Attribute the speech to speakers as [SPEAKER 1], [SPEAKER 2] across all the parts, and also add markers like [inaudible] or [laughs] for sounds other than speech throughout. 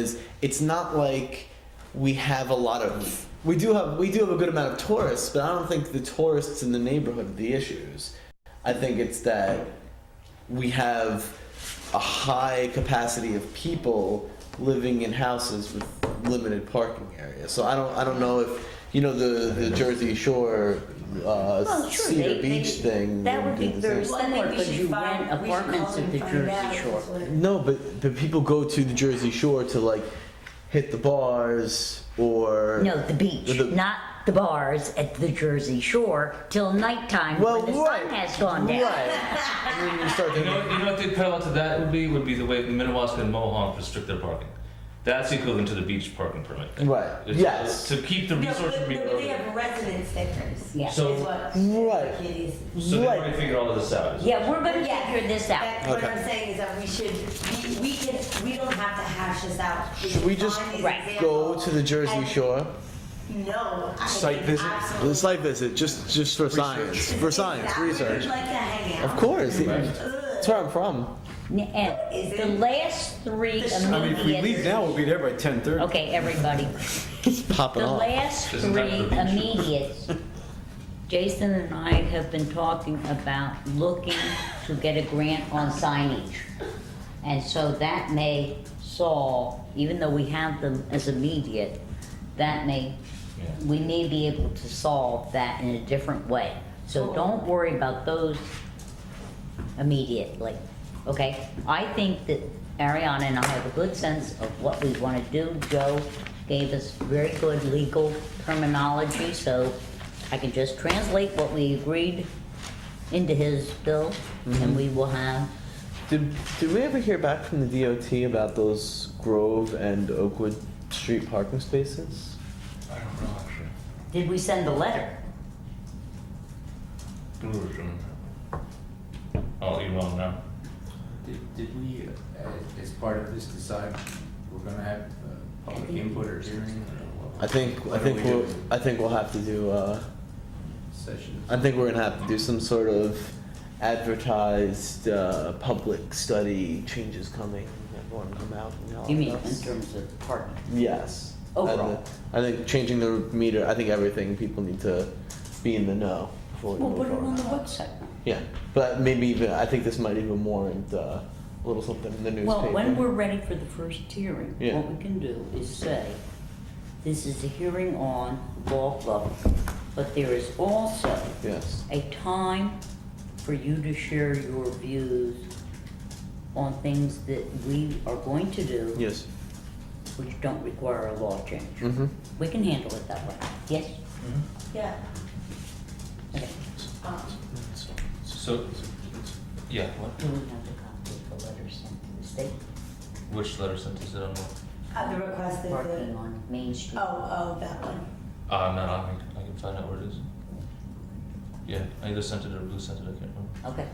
[SPEAKER 1] is it's not like we have a lot of we do have we do have a good amount of tourists, but I don't think the tourists in the neighborhood are the issues. I think it's that we have a high capacity of people living in houses with limited parking areas. So I don't I don't know if you know the, the Jersey Shore uh,
[SPEAKER 2] Well, sure,
[SPEAKER 1] Cedar
[SPEAKER 2] they-
[SPEAKER 1] Beach
[SPEAKER 2] they-
[SPEAKER 1] thing.
[SPEAKER 2] that would
[SPEAKER 1] do
[SPEAKER 2] be
[SPEAKER 1] the
[SPEAKER 2] very
[SPEAKER 1] same.
[SPEAKER 3] Well,
[SPEAKER 2] similar,
[SPEAKER 3] I think we
[SPEAKER 2] because
[SPEAKER 3] should
[SPEAKER 2] you
[SPEAKER 3] find-
[SPEAKER 2] rent
[SPEAKER 3] we should
[SPEAKER 2] apartments
[SPEAKER 3] call
[SPEAKER 2] at the
[SPEAKER 3] and find
[SPEAKER 2] Jersey
[SPEAKER 3] out.
[SPEAKER 2] Shore.
[SPEAKER 1] No, but but people go to the Jersey Shore to like hit the bars or
[SPEAKER 2] No, the beach,
[SPEAKER 1] The-
[SPEAKER 2] not the bars at the Jersey Shore till nighttime
[SPEAKER 1] Well,
[SPEAKER 2] when the
[SPEAKER 1] right,
[SPEAKER 2] sun has gone down.
[SPEAKER 1] Right.
[SPEAKER 2] [laughs]
[SPEAKER 1] And then you start
[SPEAKER 4] You know,
[SPEAKER 1] thinking,
[SPEAKER 4] you know what the parallel to that would be? Would be the way the Minnewaska and Mohonk restrict their parking. That's equivalent to the beach parking permit.
[SPEAKER 1] right,
[SPEAKER 4] It's-
[SPEAKER 1] yes,
[SPEAKER 4] To keep the
[SPEAKER 3] No, but,
[SPEAKER 4] resource
[SPEAKER 3] but
[SPEAKER 4] from being
[SPEAKER 3] they
[SPEAKER 4] eroded.
[SPEAKER 3] have resident stickers.
[SPEAKER 2] Yeah.
[SPEAKER 4] So-
[SPEAKER 3] is what
[SPEAKER 1] Right.
[SPEAKER 3] It is.
[SPEAKER 4] So they've
[SPEAKER 1] right.
[SPEAKER 4] already figured all of this out. is it?
[SPEAKER 2] Yeah, we're gonna
[SPEAKER 3] Yeah.
[SPEAKER 2] figure this out.
[SPEAKER 3] That's what
[SPEAKER 1] Okay.
[SPEAKER 3] I'm saying is that we should, we, we can, we don't have to hash this out. We
[SPEAKER 1] Should we
[SPEAKER 3] can
[SPEAKER 1] just
[SPEAKER 3] find these
[SPEAKER 2] Right.
[SPEAKER 1] Go to the Jersey
[SPEAKER 3] examples
[SPEAKER 1] Shore.
[SPEAKER 3] and- No. I
[SPEAKER 5] Site
[SPEAKER 3] think
[SPEAKER 5] visit?
[SPEAKER 3] absolutely-
[SPEAKER 1] The site visit, just just for science, for science
[SPEAKER 3] Exactly.
[SPEAKER 1] research.
[SPEAKER 3] We'd like to hang out.
[SPEAKER 1] Of course,
[SPEAKER 3] Ugh.
[SPEAKER 1] that's where I'm from.
[SPEAKER 2] N- And
[SPEAKER 3] Is
[SPEAKER 2] the
[SPEAKER 3] it-
[SPEAKER 2] last three
[SPEAKER 3] The shore-
[SPEAKER 5] I mean, if we leave
[SPEAKER 2] immediate.
[SPEAKER 5] now, we'll be there by ten thirty.
[SPEAKER 2] Okay,
[SPEAKER 5] [laughs]
[SPEAKER 2] everybody.
[SPEAKER 1] Popping
[SPEAKER 2] The
[SPEAKER 1] off.
[SPEAKER 2] last
[SPEAKER 4] This is not
[SPEAKER 2] three
[SPEAKER 4] the beach.
[SPEAKER 2] immediate. Jason and I have been talking about looking to get a grant on signage. And so that may solve, even though we have them as immediate, that may,
[SPEAKER 4] Yeah.
[SPEAKER 2] we may be able to solve that in a different way. So don't worry about those immediately, okay? I think that Ariana and I have a good sense of what we want to do. Joe gave us very good legal terminology, so I can just translate what we agreed into his bill, and we will have,
[SPEAKER 1] Did did we ever hear back from the DOT about those Grove and Oakwood Street parking spaces?
[SPEAKER 4] I don't know, actually.
[SPEAKER 2] did we send a letter?
[SPEAKER 4] We were doing that. I'll email now.
[SPEAKER 6] Did, did we, uh, as part of this, decide we're gonna have uh, public input or hearing or what?
[SPEAKER 1] I think I
[SPEAKER 6] What are
[SPEAKER 1] think
[SPEAKER 6] we
[SPEAKER 1] we'll
[SPEAKER 6] doing?
[SPEAKER 1] I think we'll have to do. Uh,
[SPEAKER 6] Sessions?
[SPEAKER 1] I think we're gonna have to do some sort of advertised uh, public study. Changes coming. Everyone come out and help
[SPEAKER 2] You mean Uh, in
[SPEAKER 1] us.
[SPEAKER 2] terms of parking?
[SPEAKER 1] Yes. uh,
[SPEAKER 2] Overall.
[SPEAKER 1] I, think changing the meter. I think everything people need to be in the know before we
[SPEAKER 2] Well,
[SPEAKER 1] move
[SPEAKER 2] put it
[SPEAKER 1] forward.
[SPEAKER 2] on the website.
[SPEAKER 1] Yeah, but maybe even I think this might even warrant uh, a little something in the newspaper.
[SPEAKER 2] Well, when we're ready for the first hearing,
[SPEAKER 1] Yeah.
[SPEAKER 2] what we can do is say, this is a hearing on law club, but there is also
[SPEAKER 1] yes,
[SPEAKER 2] a time for you to share your views on things that we are going to do,
[SPEAKER 1] yes,
[SPEAKER 2] which don't require a law change.
[SPEAKER 1] mm-hmm.
[SPEAKER 2] We can handle it that way, yes?
[SPEAKER 3] Yeah.
[SPEAKER 2] Okay.
[SPEAKER 3] um,
[SPEAKER 4] So, yeah, what?
[SPEAKER 2] Do we have a copy of the letter sent to the state
[SPEAKER 4] Which letter sent is it on? Uh,
[SPEAKER 3] At the request of
[SPEAKER 2] parking
[SPEAKER 3] the,
[SPEAKER 2] on Main Street?
[SPEAKER 3] oh, oh, that one.
[SPEAKER 4] Uh, I'm not on me. I can find out where it is. Yeah, I either sent it or Blue sent it, I can't remember.
[SPEAKER 2] Okay,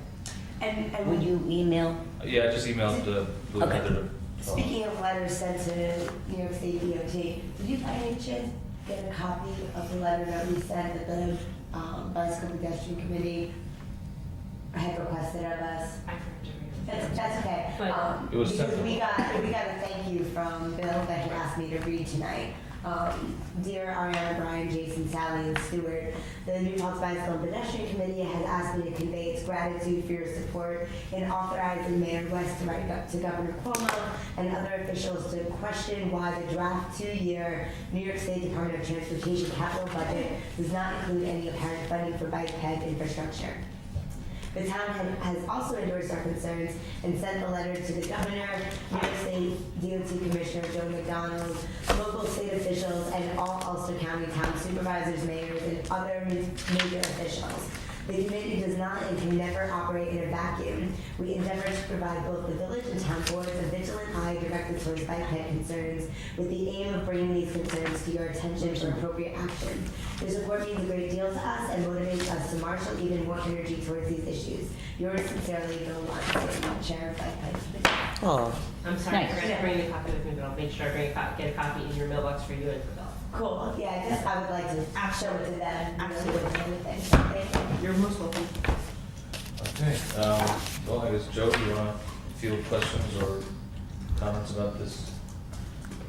[SPEAKER 3] And,
[SPEAKER 2] will
[SPEAKER 3] and
[SPEAKER 2] you email?
[SPEAKER 4] Yeah, I just emailed, uh, Blue
[SPEAKER 2] Okay.
[SPEAKER 4] Heather.
[SPEAKER 3] speaking of letters sent to New York State DOT, did you by any chance get a copy of the letter that we sent that the um, bicycle pedestrian committee had requested of us?
[SPEAKER 7] I forgot to read it.
[SPEAKER 3] That's, that's okay.
[SPEAKER 7] But-
[SPEAKER 3] um,
[SPEAKER 4] It was
[SPEAKER 3] because
[SPEAKER 4] sent.
[SPEAKER 3] We got, we got a thank you from Bill that he asked me to read tonight. Um, Dear Ariana, Brian, Jason, Sally, and Stuart, the New Paltz Bicycle and Pedestrian Committee has asked me to convey its gratitude for your support in authorizing Mayor West to write up to Governor Cuomo and other officials to question why the draft two-year New York State Department of Transportation capital budget does not include any apparent funding for bike ped infrastructure. The town had- has also endorsed our concerns and sent a letter to the governor, New York State DOT Commissioner Joe McDonald, local state officials, and all Ulster County town supervisors, mayors, and other major officials. The committee does not and can never operate in a vacuum. We endeavor to provide both the village and town boards a vigilant eye directed towards bike ped concerns with the aim of bringing these concerns to your attention for appropriate action. Your support means a great deal to us and motivates us to marshal even more energy towards these issues. Yours sincerely, Bill Watson, Chair of Bike Ped Committee.
[SPEAKER 1] Oh,
[SPEAKER 7] I'm sorry,
[SPEAKER 2] Nice.
[SPEAKER 7] I forgot to bring a copy with me, but I'll make sure I bring a copy, get a copy in your mailbox for you and for Bill.
[SPEAKER 3] Cool, yeah, I guess I would like to show it to them, absolutely, anything, thank you.
[SPEAKER 7] You're most welcome.
[SPEAKER 4] Okay, um, well, I guess Joe, you wanna field questions or comments about this